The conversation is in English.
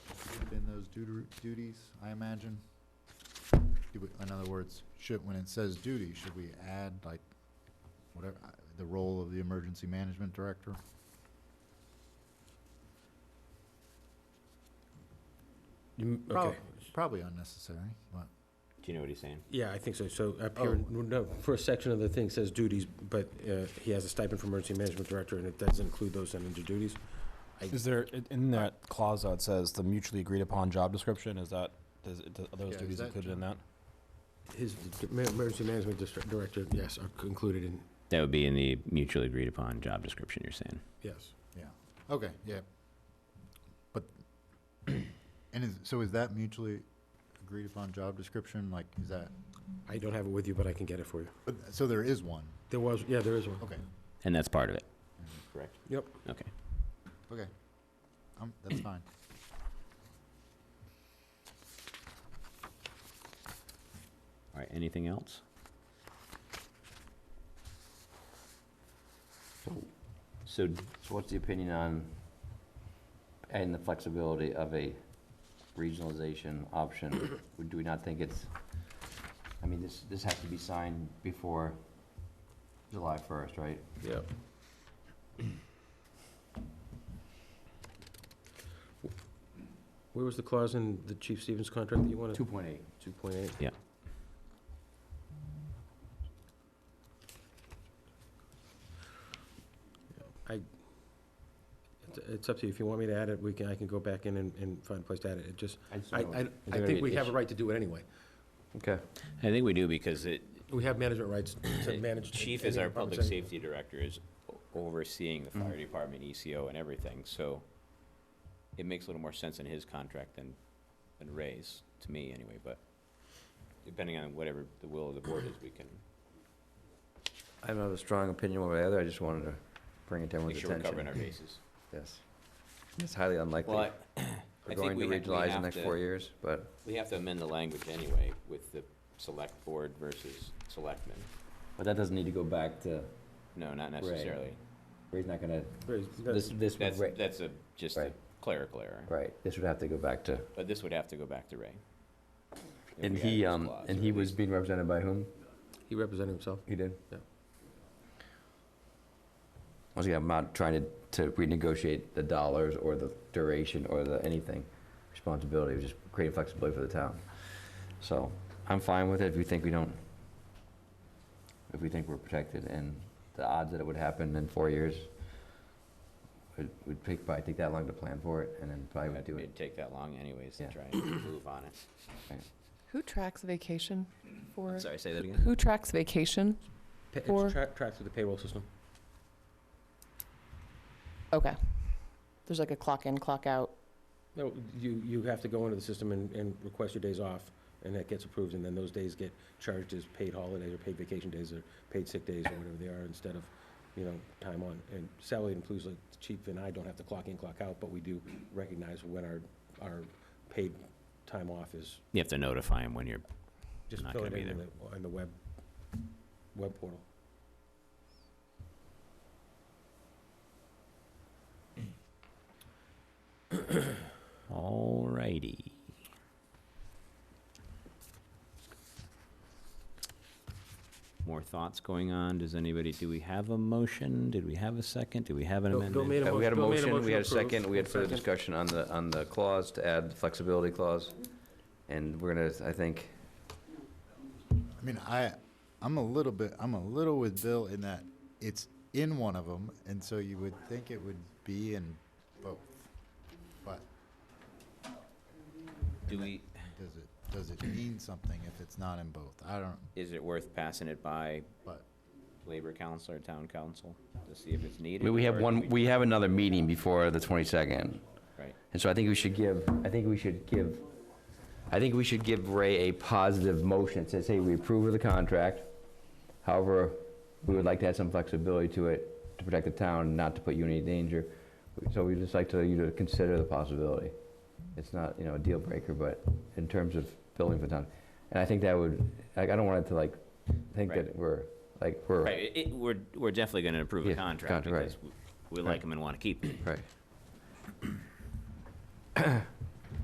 those duder- duties, I imagine? Do we- In other words, should, when it says duty, should we add like whatever, uh, the role of the emergency management director? You- Prob- Okay. Probably unnecessary, but, Do you know what he's saying? Yeah, I think so. So up here, Oh. no, first section of the thing says duties, but uh, he has a stipend for emergency management director, and it does include those under duties. Is there, i- in that clause that says the mutually agreed upon job description, is that, does, it- are Yeah, those is duties that included in that? His d- ma- emergency management distri- director, yes, are c- included in, That would be in the mutually agreed upon job description you're saying. yes. yeah, okay, yeah. But, and is, so is that mutually agreed upon job description, like, is that, I don't have it with you, but I can get it for you. but- so there is one, There was, yeah, there is one. okay, And that's part of it. Correct. Oh, Yep. Okay. okay. Um, that's fine. All right. Anything else? So So what's the opinion on adding the flexibility of a regionalization option? Or Do we not think it's, I mean, this, this has to be signed before July 1st, right? Yep. Where was the clause in the Chief Stevens contract that you wanted? 2.8. 2.8? Yeah. I, it's- it's up to you. If you want me to add it, we can, I can go back in and, and find a place to add it. It just, I just I, don't know. I, I there think an we have a issue? right to do it anyway. Okay. I think we do because it, We have management rights to manage. chief any is our departments public anyway. safety director, is o- overseeing the fire department, ECO and everything, so it makes a little more sense in his contract than, than Ray's, to me anyway, but depending on whatever the will of the board is, we can I don't have a strong opinion one way or the other, I just wanted to bring it to make everyone's sure we're covering our attention. bases. Yes. It's highly unlikely Well, I- we're I think going we ha- to we regionalize in the have next four to, years, but we have to amend the language anyway with the select board versus selectmen. But that doesn't need to go back to, No, not necessarily. Ray's not gonna, Very- this, this, would That's, Ray- that's a, just a Right. clerical error, right, this would have to go back to but this would have to go back to Ray. if And we added he, this um, clause, and or he at was least- being represented by whom? He represented himself. He did? Yeah. Once again, I'm not trying to, to renegotiate the dollars or the duration or the anything, responsibility, just creating flexibility for the town. So, I'm fine with it if you think we don't, if we think we're protected and the odds that it would happen in four years, it would take, probably take that long to plan for it and then probably would do it. It'd take that long anyways to Yeah. try and move on it. Who tracks vacation for, Sorry, say that again? who tracks vacation? Pa- it's Or- tra- Tracked through the payroll system. Okay. There's like a clock in, clock out. No, you, you have to go into the system and, and request your days off, and that gets approved, and then those days get charged as paid holidays or paid vacation days or paid sick days or whatever they are, instead of, you know, time on. And salary and employees like the chief and I don't have to clock in, clock out, but we do recognize when our, our paid time off is You have to notify him when you're, just Not fill it gonna in be on the, on the web, web portal. alrighty. More thoughts going on? Does anybody, do we have a motion? Did we have a second? Do we have an Bill- Bill made amendment? a Uh, We had a Bill made motion, we had a to approve. second, we had further Second. discussion on the, on the clause to add the flexibility clause. And we're gonna, I think, I mean, I, I'm a little bit, I'm a little with Bill in that it's in one of them, and so you would think it would be in both. But Do we, does it, does it mean something if it's not in both? I don't, is it worth passing it by but, labor council or town council to see if it's needed? we- we have or do one, we have another meeting before the 22nd. Right, And so I think we should give, I think we should give, I think we should give Ray a positive motion that says, hey, we approve of the contract. However, we would like to add some flexibility to it to protect the town, not to put you in any danger. So we'd just like to, you to consider the possibility. It's not, you know, a deal breaker, but in terms of building for the town. And I think that would, I I don't want it to like, think Right. that we're, like, we're. right, it- it, we're, we're definitely gonna approve a Yeah, contract contract, right. because we- we like Right. them and wanna keep them. Right.